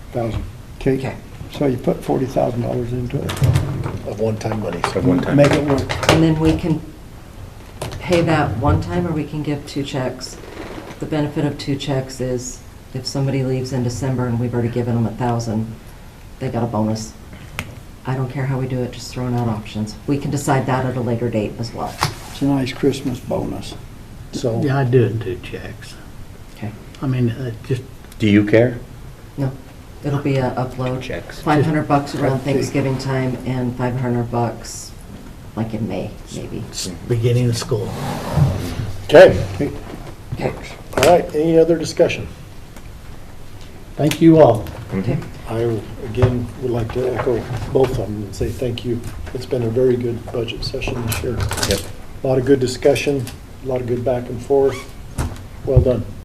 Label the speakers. Speaker 1: thousand. Okay?
Speaker 2: Okay.
Speaker 1: So you put forty thousand dollars into it.
Speaker 3: of one-time money.
Speaker 4: Of one time.
Speaker 1: Make it work.
Speaker 2: And then we can pay that one time, or we can give two checks. The benefit of two checks is if somebody leaves in December and we've already given them a thousand, they got a bonus. I don't care how we do it, just throwing out options. We can decide that at a later date as well.
Speaker 1: It's a nice Christmas bonus.
Speaker 3: So,
Speaker 5: Yeah, I do it in two checks.
Speaker 2: Okay.
Speaker 5: I mean, uh, just,
Speaker 4: Do you care?
Speaker 2: No, it'll be a upload.
Speaker 4: Checks.
Speaker 2: Five hundred bucks around Thanksgiving time and five hundred bucks like in May, maybe.
Speaker 5: it's beginning of school.
Speaker 3: okay,
Speaker 1: Okay,
Speaker 2: Okay.
Speaker 3: all right, any other discussion?
Speaker 5: Thank you all.
Speaker 2: Okay.
Speaker 3: I, again, would like to echo both of them and say thank you. It's been a very good budget session this year.
Speaker 4: Yep.
Speaker 3: A Lot of good discussion, a lot of good back and forth. Well done.